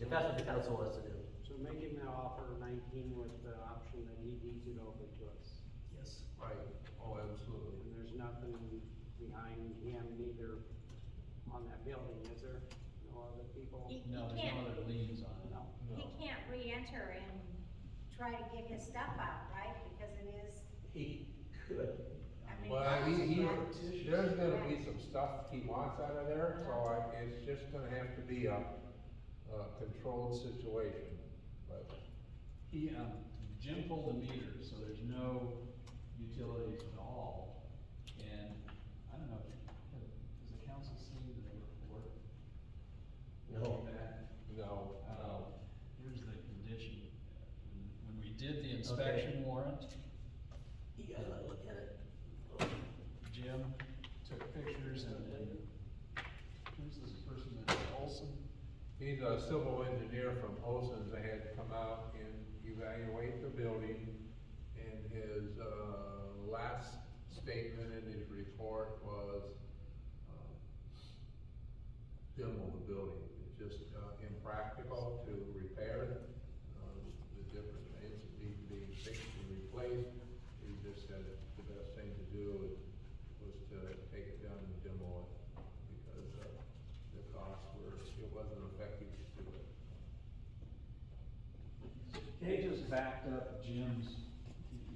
if that's what the council wants to do. So make him now offer nineteen with the option that he deeds it over to us. Yes. Right, oh, absolutely. And there's nothing behind him neither on that building, is there? No other people? He, he No, there's no can't, other liens on it. No. he can't re-enter and try to get his stuff out, right? Because it is, He could. I mean. Well, he, he, it's- there's gonna be some stuff he wants out of there, so I- it's just gonna have to be a, a controlled situation. But, He, um, Jim pulled the meter, so there's no utilities at all, and I don't know, have- has the council seen the report? No. Back? no, Uh, here's the condition, When- when we did the inspection warrant, You gotta look at it. Jim took pictures and, and who's this person, that Olson? he's a civil engineer from Olson's that had come out and evaluate the building. And his, uh, last statement in his report was, uh, demo the building. It's just uh, impractical to repair it. Uh, The different things that need to be fixed and replaced. He just said the best thing to do was to take it down and demo it because uh, the costs were, it wasn't effective to do it. They just backed up Jim's,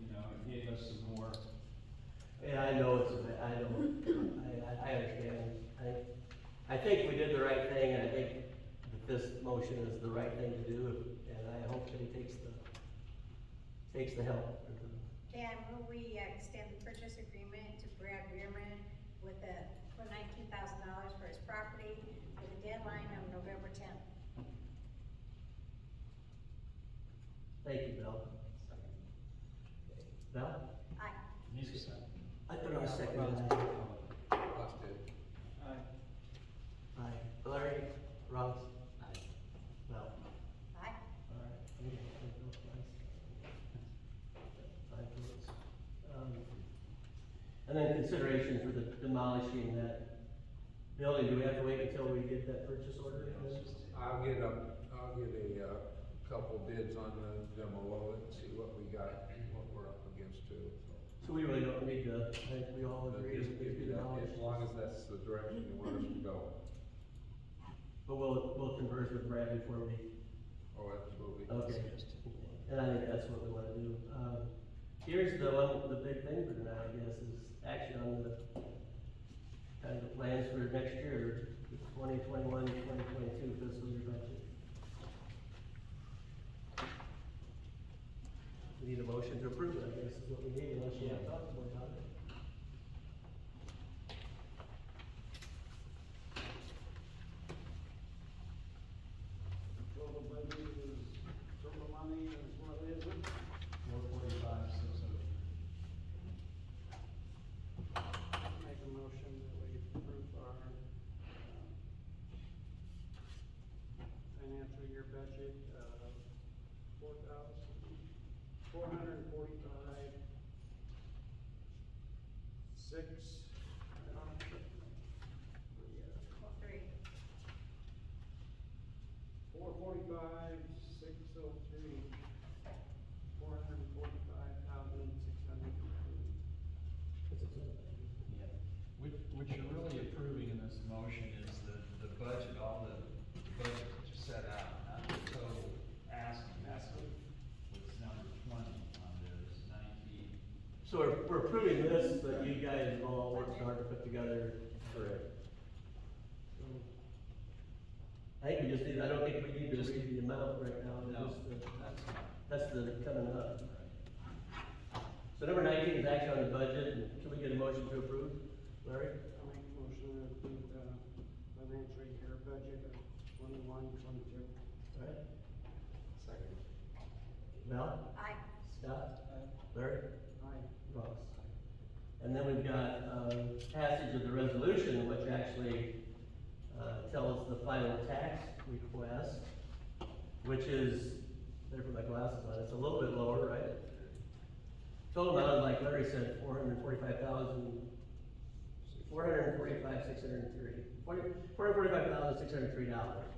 you know, and gave us some more, And I know it's, a- I know, I, I, I understand. I, I think we did the right thing, and I think that this motion is the right thing to do, and I hope that he takes the, takes the help. Dan, will we uh, extend the purchase agreement to Brad Rearman with the, for nineteen thousand dollars for his property with a deadline of November tenth? Thank you, Bill. Bill? I, needs to say. I put on a second. Busted. Aye. Larry? Ross? Aye. Bill? I, Alright, we got to vote twice. Five votes. Um, And then consideration for the demolishing that building, do we have to wait until we get that purchase order? I'll get a, I'll get a, uh, couple bids on the demo of it, see what we got, what we're up against too. So we really don't need to, I think we all agree, it's If- gonna be if- demolished. As long as that's the direction you want us to go. But we'll, we'll converse with Brad before we, Oh, absolutely. okay. And I think that's what we wanna do. Um, here's the one, the big thing for tonight, I guess, is action on the, kind of the plans for next year, 2021-2022 fiscal year budget. We need a motion to approve, it, I guess, is what we need, unless you have thoughts more about it. Well, the budget is, total money is what it is. Four forty-five, six oh. Make a motion that we approve our, um, financial year budget of four thousand, four hundred and forty-five, six, I don't well, three, Four forty-five, six oh three, four hundred and forty-five thousand, six hundred. Yeah. What, what you're really approving in this motion is the, the budget, all the budget that you set out, not the total asking. Asking. What's number twenty on there is nineteen. So we're, we're approving this, but you guys all worked hard to put together for it. I think we just need, I don't think we need to read the amount right now, but just the- That's not that's the coming up. right. So number nineteen is action on the budget, and can we get a motion to approve? Larry? I'll make a motion to approve the financial year budget of twenty-one, twenty-two. All right. Second. Val? I, Scott? Larry? Aye. Ross. And then we've got, um, passage of the resolution, which actually, uh, tells the final tax request, which is, there for my glasses on, it's a little bit lower, right? Total amount, like Larry said, four hundred and forty-five thousand, four hundred and forty-five, six hundred and three, four hundred and forty-five thousand, six hundred and three dollars.